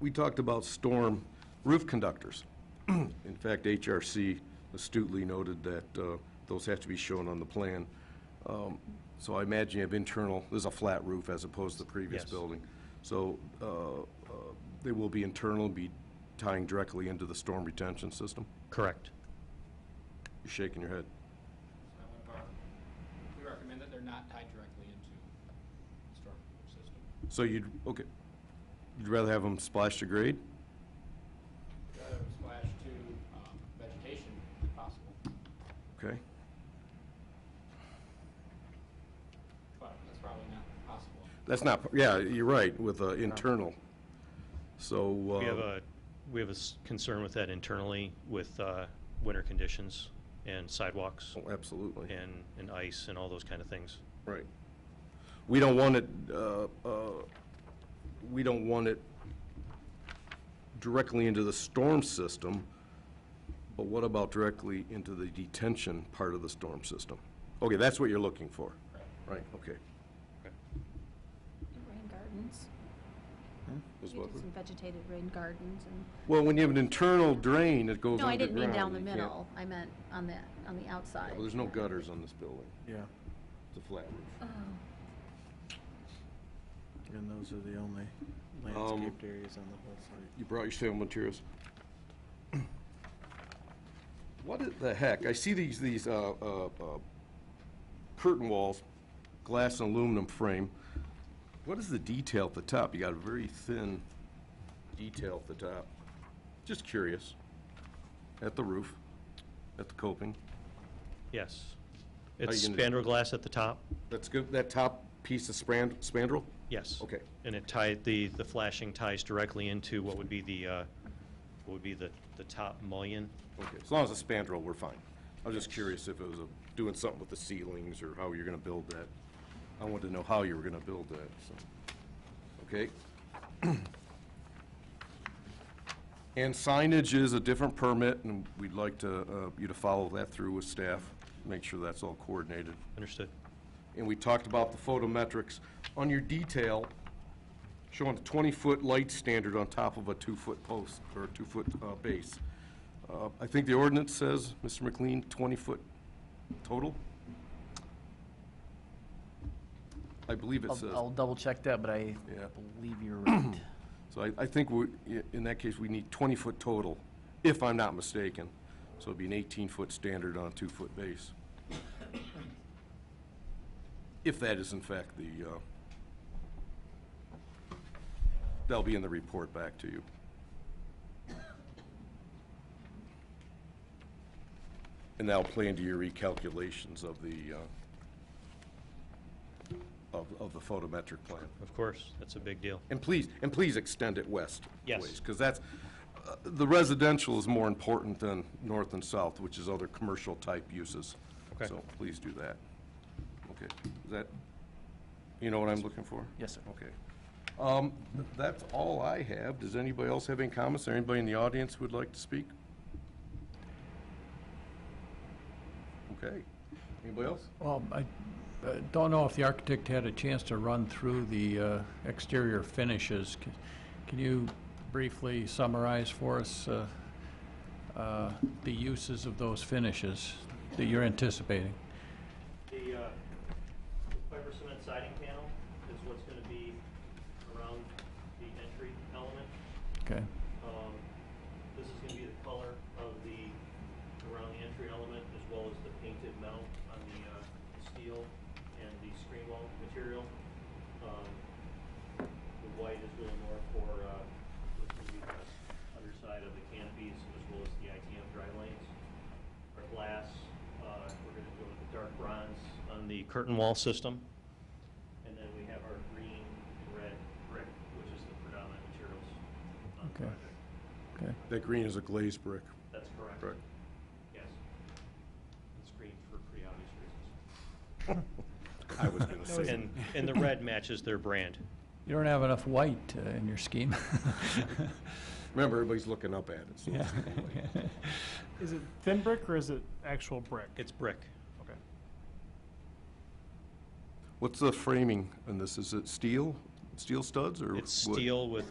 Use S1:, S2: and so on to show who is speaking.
S1: we talked about storm roof conductors. In fact, HRC astutely noted that uh, those have to be shown on the plan. Um, So I imagine you have internal, this is a flat roof as opposed to the previous
S2: Yes.
S1: building. So uh, uh, they will be internal, be tying directly into the storm retention system?
S2: Correct.
S1: You're shaking your head.
S3: We recommend that they're not tied directly into storm system.
S1: So you'd, okay, you'd rather have them splash to grade?
S3: Rather than splash to um, vegetation if possible,
S1: Okay,
S3: but that's probably not possible.
S1: that's not, yeah, you're right, with uh, internal, so.
S2: We have
S1: uh,
S2: a, we have a s- concern with that internally with uh, winter conditions and sidewalks
S1: Oh, Absolutely,
S2: and, and ice and all those kind of things.
S1: right. We don't want it, uh, uh, we don't want it directly into the storm system, but what about directly into the detention part of the storm system? Okay, that's what you're looking for, right, okay.
S4: Rain gardens.
S1: Is
S4: We
S1: what
S4: do
S1: we-
S4: some vegetated rain gardens and,
S1: Well, when you have an internal drain that goes
S4: no, I
S1: underground.
S4: didn't mean down the
S1: you can't-
S4: middle, I meant on the, on the outside.
S1: Well, there's no gutters on this building. Yeah. It's a flat roof.
S4: Oh,
S5: And those are the only landscaped areas on the whole site.
S1: You brought your sale materials. What i- the heck? I see these, these uh, uh, uh, curtain walls, glass and aluminum frame. What is the detail at the top? You got a very thin detail at the top. Just curious. At the roof, at the coping.
S2: Yes.
S1: are
S2: It's
S1: you gonna do-
S2: spandrel glass at the top,
S1: That's good, that top piece of span- spandrel?
S2: yes.
S1: Okay.
S2: And it tied, the, the flashing ties directly into what would be the, uh, what would be the, the top mullion.
S1: Okay, as long as it's spandrel, we're fine. I was just curious if it was a- doing something with the ceilings or how you're gonna build that. I wanted to know how you were gonna build that, so, okay? And signage is a different permit, and we'd like to, uh, you to follow that through with staff, make sure that's all coordinated.
S2: Understood?
S1: And we talked about the photometrics. On your detail, showing a 20-foot light standard on top of a two-foot post, or a two-foot uh, base. Uh, I think the ordinance says, Mr. McLean, 20-foot total? I believe it
S6: I'll,
S1: says.
S6: I'll double check that, but I
S1: Yeah.
S6: believe you're right.
S1: So I, I think we, i- in that case, we need 20-foot total, if I'm not mistaken. So it'd be an 18-foot standard on a two-foot base. If that is in fact the, uh, that'll be in the report back to you. And that'll play into your recalculations of the, uh, of, of the photometric plan.
S2: Of course, that's a big deal.
S1: And please, and please extend it west.
S2: Yes.
S1: Because that's, uh, the residential is more important than north and south, which is other commercial-type uses.
S2: Okay.
S1: So please do that. Okay, is that, you know what I'm looking for?
S6: Yes, sir.
S1: Okay. Um, th- That's all I have. Does anybody else have any comments? Or anybody in the audience who would like to speak? Okay. Anybody else?
S7: Well, I uh, don't know if the architect had a chance to run through the uh, exterior finishes. C- Can you briefly summarize for us uh, uh, the uses of those finishes that you're anticipating?
S2: The uh, fiber cement siding panel is what's going to be around the entry element.
S7: Okay,
S2: Um, This is going to be the color of the, around the entry element, as well as the painted metal on the uh, steel and the screen wall material. Um, The white is really more for uh, what's going to be the underside of the canopies, as well as the ITM dry lanes. Our glass, uh, we're going to go with the dark bronze on the curtain wall system. And then we have our green and red brick, which is the predominant materials on the
S7: Okay.
S2: project.
S7: okay.
S1: That green is a glazed brick.
S2: That's correct.
S1: Correct.
S2: Yes. It's green for pretty obvious reasons.
S1: I was going to say.
S2: And, and the red matches their brand.
S7: You don't have enough white uh, in your scheme.
S1: Remember, everybody's looking up at it, so
S7: Yeah.
S1: it's easy.
S8: Is it thin brick or is it actual brick?
S2: It's brick.
S8: okay.
S1: What's the framing on this? Is it steel, steel studs or?
S2: It's
S1: wood?
S2: steel with